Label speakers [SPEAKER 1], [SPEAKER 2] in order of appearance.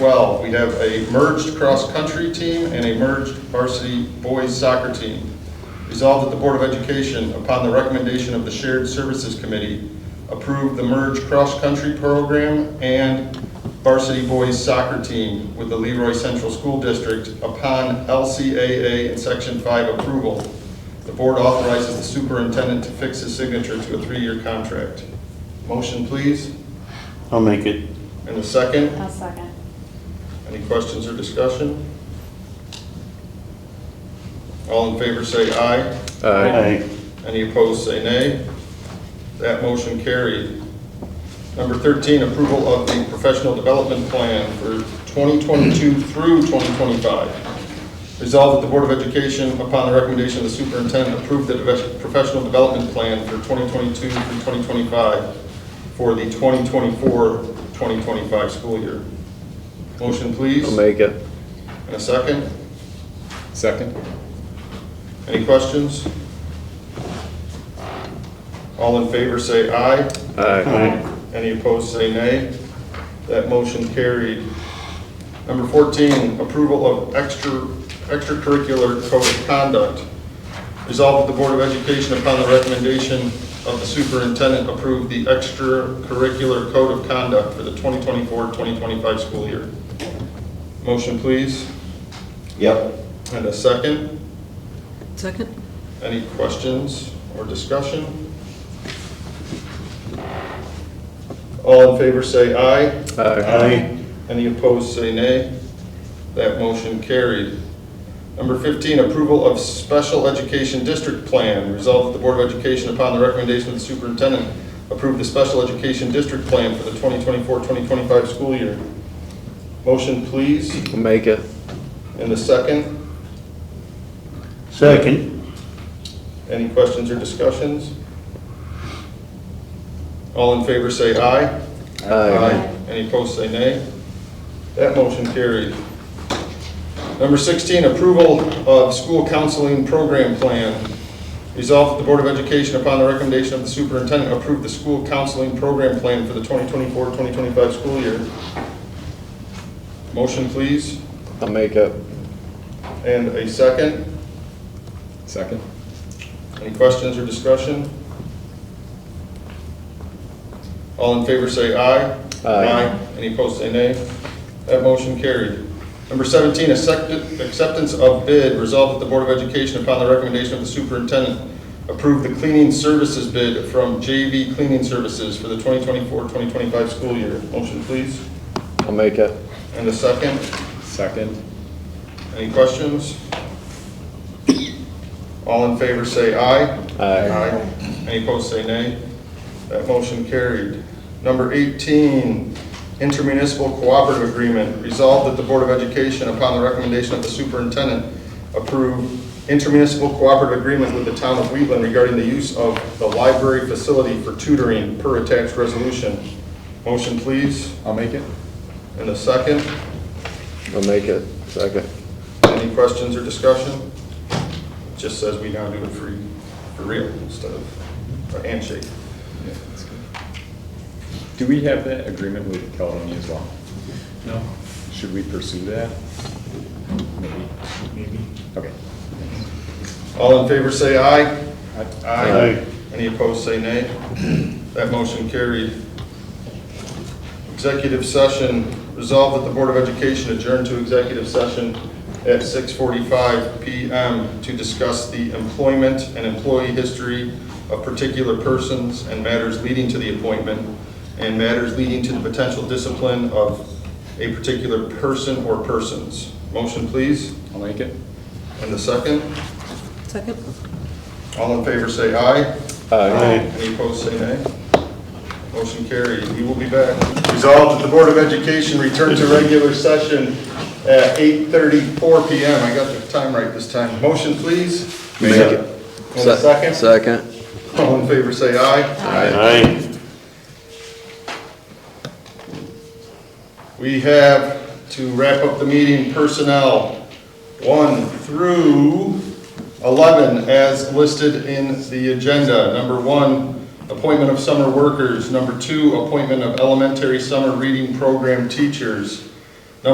[SPEAKER 1] 12, we have a merged cross-country team and a merged varsity boys soccer team. Resolved that the Board of Education, upon the recommendation of the Shared Services Committee, approve the merged cross-country program and varsity boys soccer team with the Leroy Central School District upon LCAA and Section 5 approval. The board authorizes the superintendent to fix his signature to a three-year contract. Motion, please,
[SPEAKER 2] I'll make it.
[SPEAKER 1] and a second.
[SPEAKER 3] I'll second.
[SPEAKER 1] Any questions or discussion? All in favor say aye.
[SPEAKER 2] Aye.
[SPEAKER 1] Any opposed say nay. That motion carried. Number 13, approval of the professional development plan for 2022 through 2025. Resolved that the Board of Education, upon the recommendation of the superintendent, approve the deve- professional development plan for 2022 through 2025 for the 2024-2025 school year. Motion, please.
[SPEAKER 4] I'll make it.
[SPEAKER 1] And a second?
[SPEAKER 4] Second?
[SPEAKER 1] Any questions? All in favor say aye.
[SPEAKER 4] Aye.
[SPEAKER 2] Aye.
[SPEAKER 1] Any opposed say nay. That motion carried. Number 14, approval of extra extracurricular code of conduct. Resolved that the Board of Education, upon the recommendation of the superintendent, approve the extracurricular code of conduct for the 2024-2025 school year. Motion, please,
[SPEAKER 5] Yep.
[SPEAKER 1] and a second.
[SPEAKER 6] Second?
[SPEAKER 1] Any questions or discussion? All in favor say aye.
[SPEAKER 2] Aye.
[SPEAKER 1] Any opposed say nay. That motion carried. Number 15, approval of special education district plan. Resolved that the Board of Education, upon the recommendation of the superintendent, approve the special education district plan for the 2024-2025 school year. Motion, please,
[SPEAKER 4] I'll make it.
[SPEAKER 1] and a second.
[SPEAKER 2] Second.
[SPEAKER 1] Any questions or discussions? All in favor say aye.
[SPEAKER 4] Aye.
[SPEAKER 1] Any opposed, say nay. That motion carried. Number 16, approval of school counseling program plan. Resolved that the Board of Education, upon the recommendation of the superintendent, approve the school counseling program plan for the 2024-2025 school year. Motion, please,
[SPEAKER 4] I'll make it.
[SPEAKER 1] and a second.
[SPEAKER 4] Second?
[SPEAKER 1] Any questions or discussion? All in favor say aye.
[SPEAKER 4] Aye.
[SPEAKER 1] Any opposed say nay. That motion carried. Number 17, accept- acceptance of bid. Resolved that the Board of Education, upon the recommendation of the superintendent, approve the cleaning services bid from JV Cleaning Services for the 2024-2025 school year. Motion, please.
[SPEAKER 4] I'll make it.
[SPEAKER 1] And a second.
[SPEAKER 4] Second?
[SPEAKER 1] Any questions? All in favor say aye.
[SPEAKER 4] Aye.
[SPEAKER 1] Any opposed, say nay. That motion carried. Number 18, intermunicipal cooperative agreement. Resolved that the Board of Education, upon the recommendation of the superintendent, approve intermunicipal cooperative agreement with the town of Wheatland regarding the use of the library facility for tutoring per attached resolution. Motion, please,
[SPEAKER 5] I'll make it.
[SPEAKER 1] and a second.
[SPEAKER 4] I'll make it. Second.
[SPEAKER 1] Any questions or discussion? It Just says we now do it for, for real instead of a handshake.
[SPEAKER 7] Do we have that agreement with Caledonia as well? No. Should we pursue that? Maybe. Maybe. Okay.
[SPEAKER 1] All in favor, say aye.
[SPEAKER 7] I-
[SPEAKER 2] Aye.
[SPEAKER 1] Any opposed, say nay. That motion carried. Executive session, resolved that the Board of Education adjourn to executive session at 6:45 PM to discuss the employment and employee history of particular persons and matters leading to the appointment and matters leading to the potential discipline of a particular person or persons. Motion, please,
[SPEAKER 7] I'll make it.
[SPEAKER 1] and the second.
[SPEAKER 6] Second?
[SPEAKER 1] All in favor, say aye.
[SPEAKER 4] Aye.
[SPEAKER 1] Any opposed, say nay. Motion carried. We will be back. Resolved that the Board of Education return to regular session at 8:34 PM. I got the time right this time. Motion, please.
[SPEAKER 4] Make it.
[SPEAKER 1] And a second.
[SPEAKER 4] Second.
[SPEAKER 1] All in favor, say aye.
[SPEAKER 2] Aye.
[SPEAKER 1] We have to wrap up the meeting personnel, 1 through 11 as listed in the agenda. Number 1, appointment of summer workers. Number 2, appointment of elementary summer reading program teachers.